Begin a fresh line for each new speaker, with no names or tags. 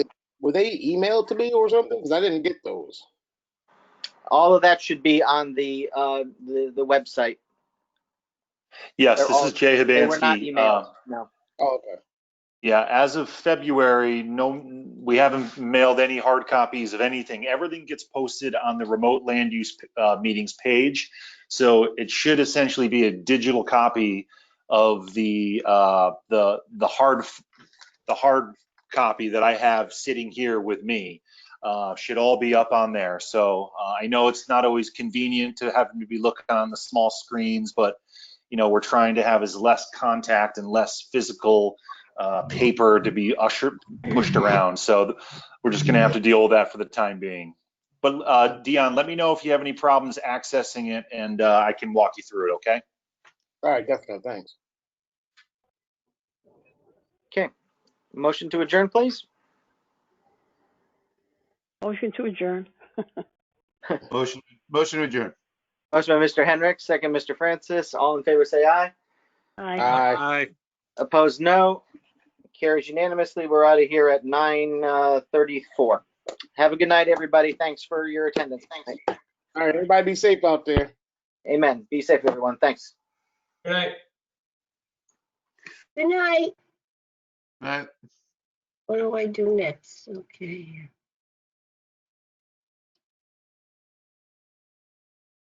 Were they emailed to me or something? Because I didn't get those.
All of that should be on the, uh, the, the website.
Yes,
They're
this
all-
is Jay
They were not
Hibansky.
emailed,
Uh,
no.
Oh, okay.
Yeah, as of February, no, we haven't mailed any hard copies of anything. Everything gets posted on the remote land use uh, meetings page. So it should essentially be a digital copy of the, uh, the, the hard, the hard copy that I have sitting here with me. uh, Should all be up on there. So uh, I know it's not always convenient to have to be looking on the small screens, but, you know, we're trying to have as less contact and less physical uh, paper to be ushered, pushed around. So th- we're just going to have to deal with that for the time being. But uh, Dion, let me know if you have any problems accessing it and uh, I can walk you through it, okay?
All right, definitely. Thanks.
Motion to adjourn, please?
Motion to adjourn.
Motion, motion to adjourn.
Motion by Mr. Henrik, second Mr. Francis. All in favor, say aye.
Aye.
Aye.
Aye.
Opposed, no. Carries unanimously. We're out of here at 9:34. Have a good night, everybody. Thanks for your attendance. Thanks.
All right, everybody be safe out there.
Amen. Be safe, everyone. Thanks.
Good night.
Good night.
Aye.
What do I do next? Okay.